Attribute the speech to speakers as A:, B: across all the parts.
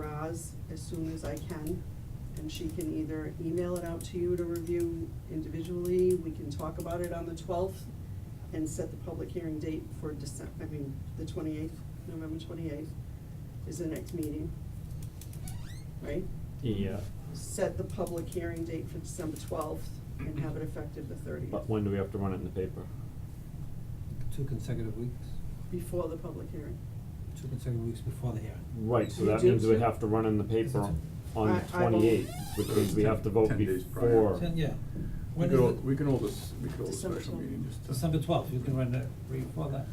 A: Roz as soon as I can, and she can either email it out to you to review individually, we can talk about it on the twelfth, and set the public hearing date for December, I mean, the twenty-eighth, November twenty-eighth is the next meeting, right?
B: Yeah,
A: Set the public hearing date for December twelfth and have it effective the thirtieth.
B: but when do we have to run it in the paper?
C: Two consecutive weeks,
A: Before the public hearing.
C: two consecutive weeks before the hearing.
B: Right, so
A: You
B: that
A: do
B: means we
A: too.
B: have to run in the paper on the
A: I- I will-
B: twenty-eighth, which means we have to vote
D: Ten days prior.
B: before.
C: Ten, yeah.
D: We
C: When
D: could,
C: is
D: hold-
C: it?
D: we can hold this, we could hold a
A: December
D: special
A: 12th.
D: meeting just to.
C: December twelfth, you can run that, read for that.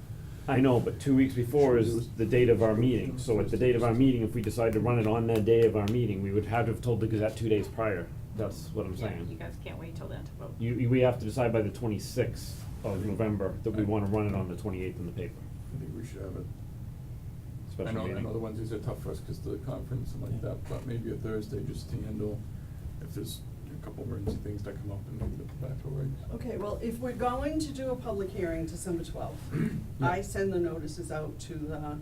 B: I know, but two weeks before is the date of our meeting, so at the date of our meeting, if we decide to run it on that day of our meeting, we would have to have told the Gazette two days prior, that's what I'm
E: Yeah, you
B: saying.
E: guys can't wait till then to vote.
B: You, you- we have to decide by the twenty-sixth of November that we wanna run it on the twenty-eighth in the paper,
D: I think we should have it. I
B: special
D: know,
B: meeting.
D: I know the Wednesdays are tough for us because the conference and like
C: Yeah.
D: that, but maybe a Thursday just to handle if there's a couple emergency things that come up and maybe the back over.
A: Okay, well, if we're going to do a public hearing December twelfth, I
D: Yeah.
A: send the notices out to the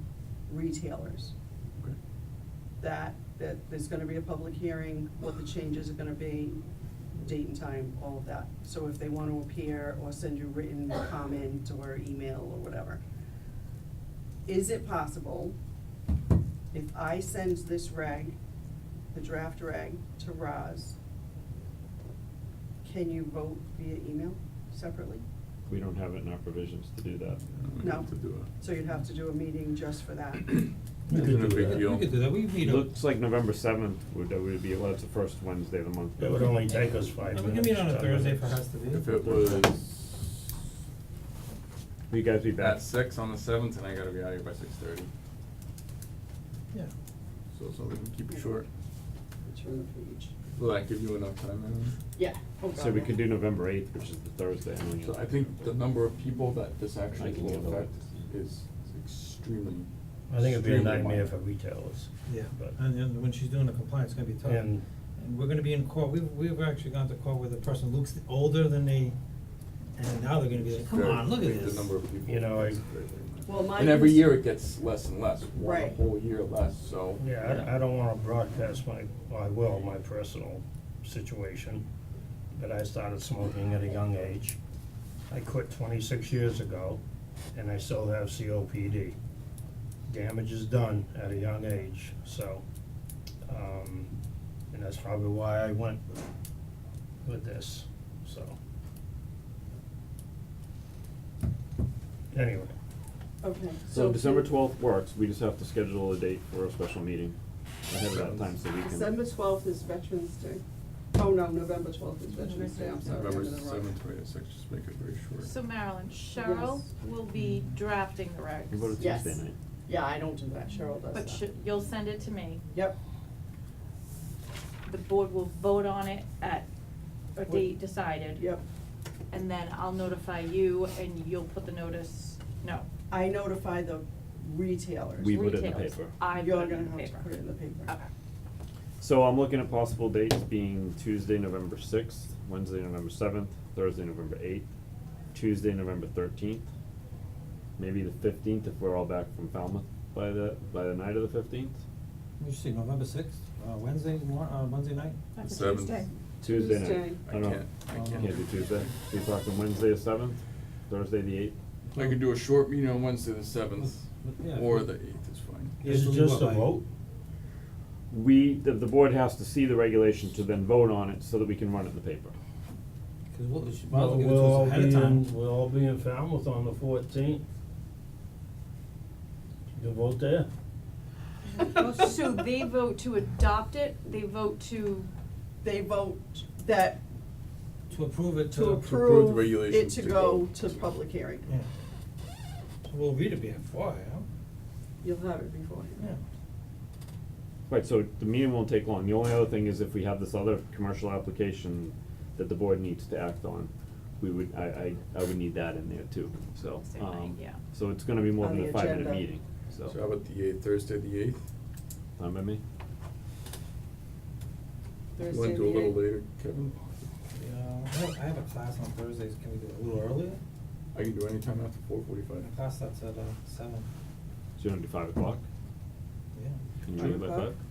A: retailers
D: Okay.
A: that, that there's gonna be a public hearing, what the changes are gonna be, date and time, all of that. So if they wanna appear or send you written comment or email or whatever. Is it possible, if I send this reg, the draft reg, to Roz, can you vote via email separately?
B: We don't have it in our provisions to do that.
D: Yeah, we
A: No.
D: have to do a.
A: So you'd have to do a meeting just for that.
C: We
D: Isn't a big deal.
C: We could do that, we meet up.
B: Looks like November seventh would, that would be, well, that's the first Wednesday of the month.
F: It would only take us five
C: And
F: minutes.
C: we can meet on a
F: 10
C: Thursday
F: minutes.
C: for us to be.
D: If it was
B: Will you guys be back?
D: at six on the seventh and I gotta be out of here by six thirty,
C: Yeah.
D: so, so we can keep it short.
A: Turn the page.
D: Will that give you enough time, Adam?
A: Yeah. oh
B: So
A: God,
B: we
A: yeah.
B: could do November eighth, which is the Thursday. I don't know.
D: So I think the number of people that this
B: I
D: actually
B: can
D: will
B: handle
D: affect
B: it.
D: is extremely.
F: I think it'd be a
D: extremely
F: nightmare
D: minor.
F: for retailers.
C: Yeah,
F: But,
C: and then when she's doing the compliance, it's gonna be tough.
F: And-
C: And we're gonna be in court, we've, we've actually gone to court with a person who looks older than they, and now they're gonna be like, come
D: Very-
C: on, look at
D: think
C: this.
D: The number of people.
F: You know, I-
D: is very, very minor.
A: Well, my
D: And every
A: cons-
D: year it gets less and less, one
A: Right.
D: whole year less, so.
F: yeah, I, I don't wanna broadcast my, well, I will, my personal situation, but I started smoking at a young age. I quit twenty-six years ago, and I still have COPD. Damage is done at a young age, so, um, and that's probably why I went with this, so. Anyway.
A: Okay.
B: So December
A: can-
B: twelfth works, we just have to schedule a date for a special meeting ahead of that time so we can.
A: December twelfth is Veterans Day. Oh, no, November twelfth is Veterans Day, I'm sorry. I'm
D: November
A: in the wrong-
D: seventh, to eighth, six, just make it very short.
E: So Marilyn, Cheryl
A: Yes.
E: will be drafting the regs.
B: We voted
A: Yes.
B: Tuesday night.
A: Yeah, I don't do that, Cheryl does that.
E: But sh- you'll send it to me.
A: Yep,
E: The board will vote on it at a
A: What-
E: date decided.
A: yep.
E: And then I'll notify you and you'll put the notice, no,
A: I notify the retailers.
B: We- put it in the
E: retailers.
B: paper.
E: I put
A: You're
E: it in the
A: gonna have to
E: paper.
A: put it in the paper.
E: Okay.
B: So I'm looking at possible dates being Tuesday, November sixth, Wednesday, November seventh, Thursday, November eighth, Tuesday, November thirteenth, maybe the fifteenth if we're all back from Falmouth by the, by the night of the fifteenth,
C: We should say November sixth, uh, Wednesday mor- uh, Wednesday night?
E: That's a
D: Seventh.
E: Tuesday.
B: Tuesday night.
A: Tuesday.
B: I
D: I
B: don't know.
D: can't, I
C: Um,
D: can't.
B: Can't do Tuesday. So you're talking Wednesday the seventh, Thursday the eighth.
D: I could do a short meeting on Wednesday, the seventh,
C: But- but yeah,
D: or
C: but-
D: the eighth is fine.
F: Is it
C: Usually
F: just a
C: what, like-
F: vote?
B: We, the, the board has to see the regulation to then vote on it so that we can run it in the paper.
C: Cause we'll, we should, might as well
F: Well,
C: give it to
F: we'll
C: us
F: all
C: ahead
F: be
C: of time.
F: in, we'll all be in Falmouth on the fourteenth. You can vote there.
E: So they vote to adopt it, they vote to,
A: They vote that
C: To approve it, to.
A: to
D: approve the
A: approve it
D: regulations
A: to
D: to
A: go
D: go.
A: to public hearing.
C: Yeah. We'll read it before,
A: You'll have it beforehand.
C: yeah,
B: Right, so the meeting won't take long. The only other thing is if we have this other commercial application that the board needs to act on, we would, I, I, I would need that in there too, so,
E: Same night,
B: um,
E: yeah.
B: so it's gonna be more
A: On
B: than
A: the
B: a five-minute
A: agenda.
B: meeting,
D: So
B: so.
D: how about the eighth, Thursday, the eighth?
B: Fine by me?
A: Thursday
D: Wanna
A: the
D: do a little
A: eighth.
D: later, Kevin?
C: yeah, I have, I have a class on Thursdays, can we do it a little earlier?
D: I can do any time after four forty-five.
C: My class starts at uh seven,
B: So you wanna do five o'clock?
C: yeah.
B: Can you
A: Five
B: do it by
A: o'clock?
B: five?